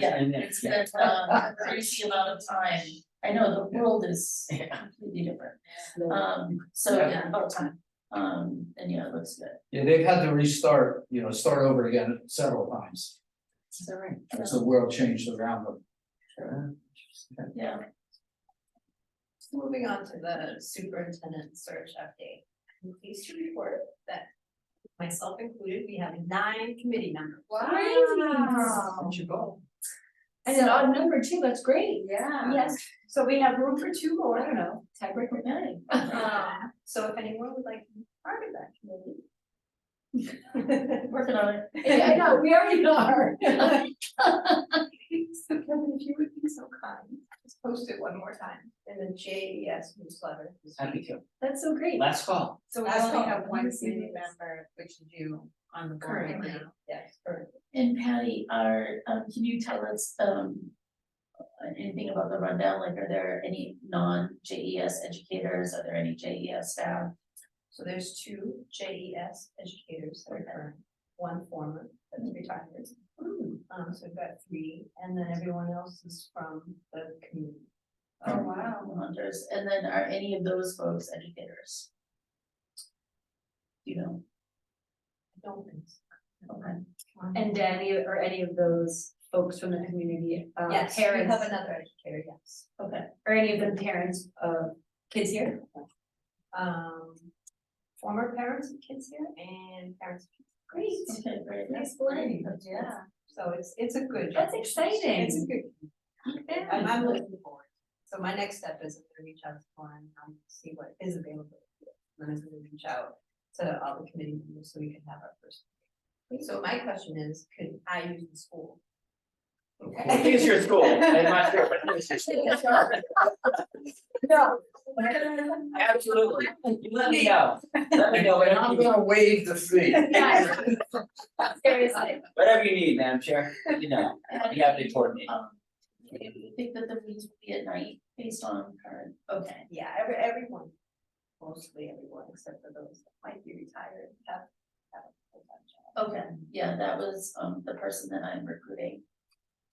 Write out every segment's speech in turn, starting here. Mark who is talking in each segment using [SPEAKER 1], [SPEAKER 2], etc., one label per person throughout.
[SPEAKER 1] Yeah,
[SPEAKER 2] and
[SPEAKER 1] it's been um, a crazy amount of time, I know the world is completely different, um, so yeah, about time. Um, and yeah, it looks good,
[SPEAKER 2] Yeah, they've had to restart, you know, start over again several times,
[SPEAKER 1] is that right?
[SPEAKER 2] as the world changed around them. Sure.
[SPEAKER 1] Yeah,
[SPEAKER 3] Moving on to the superintendent search update. I'm pleased to report that myself included, we have nine committee members.
[SPEAKER 4] Wow.
[SPEAKER 2] Where'd you go?
[SPEAKER 4] And an odd number too, that's great.
[SPEAKER 3] Yeah.
[SPEAKER 4] Yes, so we have room for two more, I don't know, tiebreaker nine.
[SPEAKER 1] Uh-huh.
[SPEAKER 3] Um, So if anyone would like to be part of that committee.
[SPEAKER 1] working on it,
[SPEAKER 4] Yeah, I know, we already are.
[SPEAKER 3] So Kevin, if you would be so kind, just post it one more time in the J E S newsletter.
[SPEAKER 2] Happy to.
[SPEAKER 4] That's so great.
[SPEAKER 2] Last call.
[SPEAKER 3] So we
[SPEAKER 4] That's
[SPEAKER 3] only
[SPEAKER 4] all.
[SPEAKER 3] have one
[SPEAKER 4] Yes, it
[SPEAKER 3] committee
[SPEAKER 4] is.
[SPEAKER 3] member, which is you on the board right
[SPEAKER 4] Currently.
[SPEAKER 3] now. Yes, currently.
[SPEAKER 1] and Patty, are, um, can you tell us, um. Anything about the rundown, like are there any non-J E S educators, are there any J E S staff?
[SPEAKER 3] So there's two J E S educators that are current, one former that's retired.
[SPEAKER 4] Hmm.
[SPEAKER 3] Um, so we've got three, and then everyone else is from the community.
[SPEAKER 1] Oh, wow. Hunters, and then are any of those folks educators? You know,
[SPEAKER 3] I don't think so.
[SPEAKER 1] okay,
[SPEAKER 4] And Danny or any of those folks from the community, uh,
[SPEAKER 3] Yes,
[SPEAKER 4] parents.
[SPEAKER 3] we have another educator, yes.
[SPEAKER 1] okay,
[SPEAKER 4] Or any of them parents of kids here?
[SPEAKER 3] Um, former parents of kids here and parents. of kids.
[SPEAKER 1] okay, great.
[SPEAKER 3] Nice
[SPEAKER 1] great.
[SPEAKER 3] blend, yeah, so it's, it's a good.
[SPEAKER 4] That's
[SPEAKER 3] job.
[SPEAKER 4] exciting.
[SPEAKER 3] It's a good. I'm, I'm looking forward. So my next step is I'm gonna reach out to Lauren, um, see what is available. And then I'm gonna reach out to all the committee members so we can have our first. meeting. So my question is, could I use the school?
[SPEAKER 2] Here's your school, I'm not sure, but here's your school.
[SPEAKER 4] No.
[SPEAKER 2] Absolutely, you let me know, let me know,
[SPEAKER 5] And I'm
[SPEAKER 2] whatever, you-
[SPEAKER 5] gonna waive the fee.
[SPEAKER 4] Yeah. Seriously.
[SPEAKER 2] whatever you need, Madam Chair, you know,
[SPEAKER 1] And,
[SPEAKER 2] you have to coordinate.
[SPEAKER 1] um, Maybe we think that the meetings will be at night based on current, okay,
[SPEAKER 3] Yeah, every, everyone, mostly everyone, except for those that might be retired, have, have a full-time job.
[SPEAKER 1] okay, yeah, that was um the person that I'm recruiting.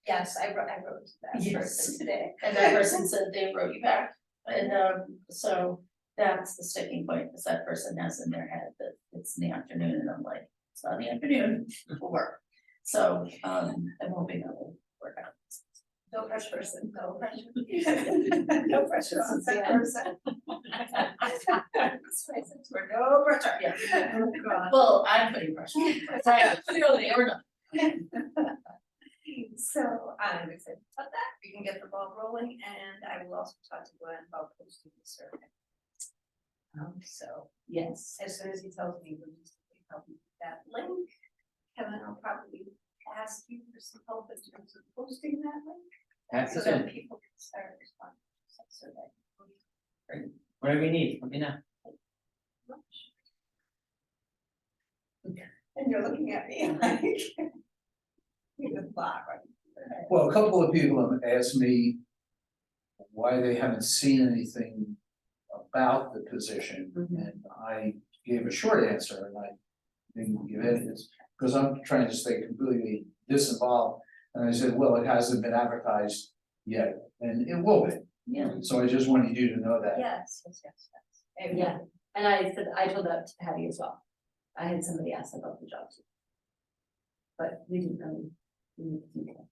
[SPEAKER 3] Yes, I wrote, I wrote to that
[SPEAKER 1] Yes.
[SPEAKER 3] person today.
[SPEAKER 1] And that person said they wrote you back, and um, so that's the sticking point, because that person has in their head that it's in the afternoon, and I'm like, it's not in the afternoon, it'll work. So um, I'm hoping that will work out.
[SPEAKER 3] No pressure person, no pressure. No pressure on that
[SPEAKER 1] Yeah.
[SPEAKER 3] person. Oh, This person, we're no pressure.
[SPEAKER 1] Yeah.
[SPEAKER 3] Oh, God.
[SPEAKER 1] Well, I'm putting pressure. on myself. Clearly, or not.
[SPEAKER 3] So I'm excited about that. We can get the ball rolling and I will also talk to Glenn about posting the survey. Um, so
[SPEAKER 4] Yes.
[SPEAKER 3] as soon as he tells me, we'll just help me with that link. Kevin, I'll probably ask you for some help in terms of posting that link
[SPEAKER 2] Happy
[SPEAKER 3] so
[SPEAKER 2] to,
[SPEAKER 3] that people can start responding to that survey.
[SPEAKER 2] whatever you need, let me know.
[SPEAKER 3] much. And you're looking at me like. You can laugh, right?
[SPEAKER 5] Well, a couple of people have asked me why they haven't seen anything about the position, and I gave a short answer, and I didn't give any, it's, because I'm trying to stay completely disinvolved, and I said, well, it hasn't been advertised yet, and it will be,
[SPEAKER 1] Yeah,
[SPEAKER 5] so I just wanted you to know that.
[SPEAKER 3] Yes, yes, yes, yes.
[SPEAKER 4] Yeah, and I said, I told that to Patty as well. I had somebody ask about the job too. But we didn't really. we didn't do that.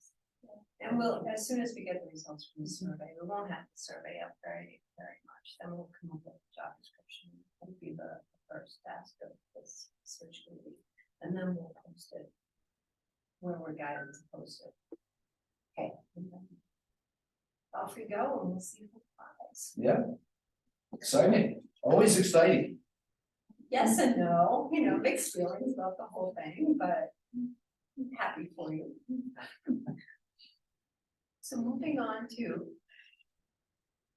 [SPEAKER 3] And we'll, as soon as we get the results from the survey, we won't have the survey up very, very much, then we'll come up with a job description. It'll be the first task of this search committee, and then we'll post it. Where we're guided to post it. Okay. and then Off we go, and we'll see who applies.
[SPEAKER 5] Yeah. Exciting, always exciting,
[SPEAKER 3] yes and no, you know, mixed feelings about the whole thing, but I'm happy for you. So moving on to.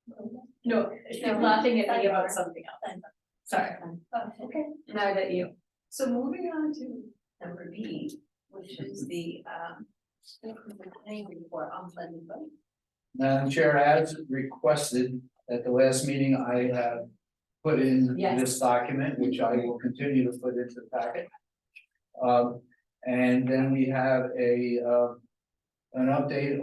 [SPEAKER 4] No,
[SPEAKER 3] No,
[SPEAKER 4] she's laughing at me
[SPEAKER 3] I are.
[SPEAKER 4] about something else. Sorry,
[SPEAKER 3] Oh, okay,
[SPEAKER 4] now that you.
[SPEAKER 3] so moving on to number B, which is the um. Planning report on planning board.
[SPEAKER 5] Madam Chair, as requested at the last meeting, I have put in
[SPEAKER 4] Yes.
[SPEAKER 5] this document, which I will continue to put into the packet. Um, and then we have a, uh, an update